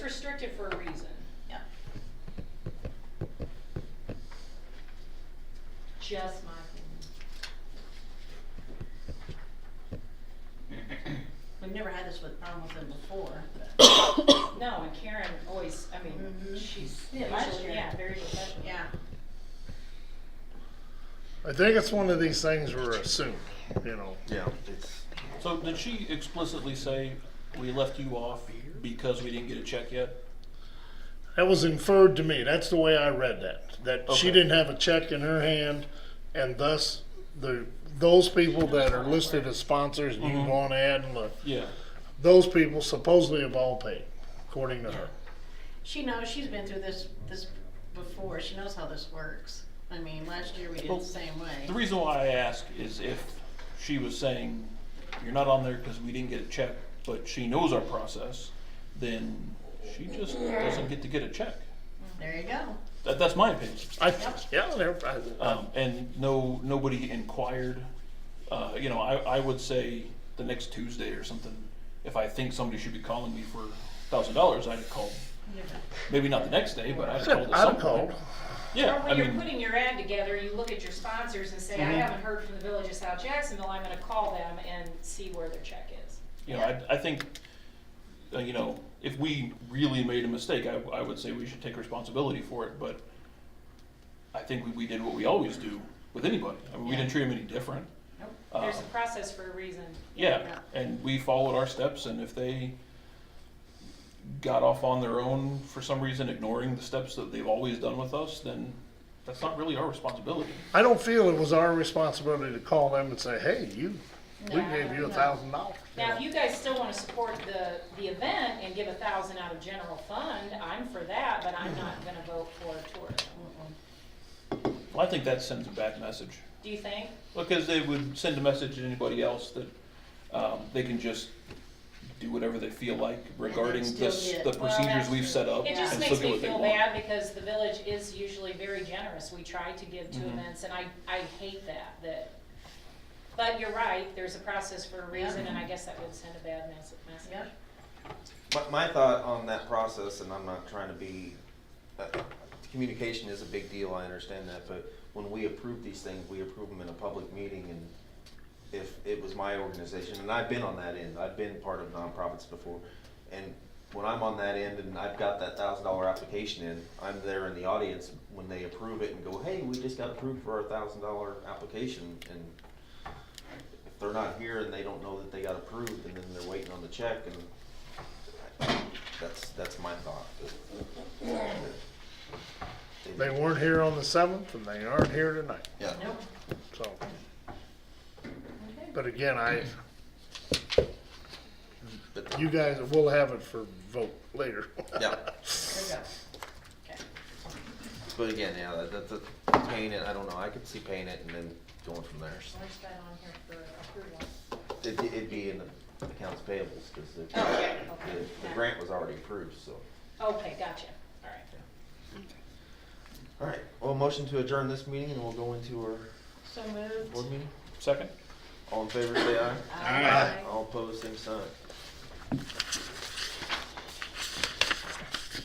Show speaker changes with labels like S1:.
S1: restricted for a reason.
S2: Yeah.
S3: Just my opinion.
S2: We've never had this with, problem with them before, but,
S1: No, and Karen always, I mean,
S2: Mhm.
S1: she's
S2: Yeah, last
S1: usually,
S2: year.
S1: yeah, very professional.
S2: yeah.
S4: I think it's one of these things we're assumed, you know.
S5: Yeah, it's,
S6: So did she explicitly say, we left you off because we didn't get a check yet?
S4: That was inferred to me. That's the way I read that. That she
S6: Okay.
S4: didn't have a check in her hand, and thus the those people that are listed as sponsors, you can
S6: Mhm.
S4: go on ahead and look.
S6: Yeah.
S4: Those people supposedly have all paid, according to her.
S2: She knows, she's been through this, this before, she knows how this works. I mean, last year we did
S6: Well,
S2: the same way.
S6: The reason why I ask is if she was saying, you're not on there because we didn't get a check, but she knows our process, then she just doesn't get to get a check.
S2: There you go.
S6: That, that's my opinion.
S4: I yeah, they're- I,
S6: Um, and no, nobody inquired. Uh, you know, I, I would say the next Tuesday or something, if I think somebody should be calling me for thousand dollars, I'd call. Maybe not the next day, but I'd call at
S4: I'd
S6: some
S4: have called.
S6: point. Yeah,
S1: Or
S6: I
S1: when you're
S6: mean, Mm-hmm.
S1: putting your ad together, you look at your sponsors and say, I haven't heard from the Village of South Jacksonville, I'm gonna call them and see where their check is.
S6: you know, I, I think, uh, you know, if we really made a mistake, I, I would say we should take responsibility for it, but I think we, we did what we always do with anybody. I mean, we didn't treat them any different.
S2: Nope.
S1: There's a
S6: Um,
S1: process for a reason.
S6: Yeah, and we followed our steps, and if they got off on their own for some reason, ignoring the steps that they've always done with us, then that's not really our responsibility.
S4: I don't feel it was our responsibility to call them and say, "Hey, you, we
S1: No,
S4: gave you a
S1: no.
S4: thousand dollars."
S1: Now, if you guys still wanna support the, the event and give a thousand out of general fund, I'm for that, but I'm
S6: Mm-hmm.
S1: not gonna vote for tourism.
S6: Well, I think that sends a bad message,
S1: Do you think?
S6: because they would send a message to anybody else that um, they can just do whatever they feel like regarding
S2: still
S6: the, s-
S2: get-
S6: the
S1: Well,
S6: procedures
S1: that's
S6: we've
S1: true.
S6: set up.
S1: It just
S6: and
S1: makes
S6: still
S1: me
S6: get
S1: feel
S6: what they want.
S1: bad because the village is usually very generous. We try to give to
S6: Mhm.
S1: events and I, I hate that, that. But you're right, there's a process for a reason and I guess that would send a bad mess- message.
S2: Yep.
S5: my, my thought on that process, and I'm not trying to be, uh, communication is a big deal, I understand that, but when we approve these things, we approve them in a public meeting, and if it was my organization, and I've been on that end, I've been part of nonprofits before, and when I'm on that end and I've got that thousand dollar application in, I'm there in the audience when they approve it and go, hey, we just got approved for our thousand dollar application, and if they're not here and they don't know that they got approved, and then they're waiting on the check, and that's, that's my thought.
S4: They weren't here on the seventh, and they aren't here tonight.
S5: Yeah.
S2: Nope.
S4: So, but again, I,
S5: But-
S4: you guys, we'll have it for vote later.
S5: Yeah,
S2: There you go. Okay.
S5: but again, yeah, that, that, that, paint it, I don't know, I could see paint it and then going from there.
S3: Where's that on here for approval?
S5: It'd, it'd be in the accounts payables, cause the,
S1: Okay,
S5: the,
S1: okay.
S5: the grant was already approved, so.
S1: Okay, gotcha, all right.
S5: Alright, well, motion to adjourn this meeting and we'll go into our
S2: So moved.
S5: board meeting.
S6: Second?
S5: All in favor, say aye.
S2: Aye.
S5: All opposed, same sign.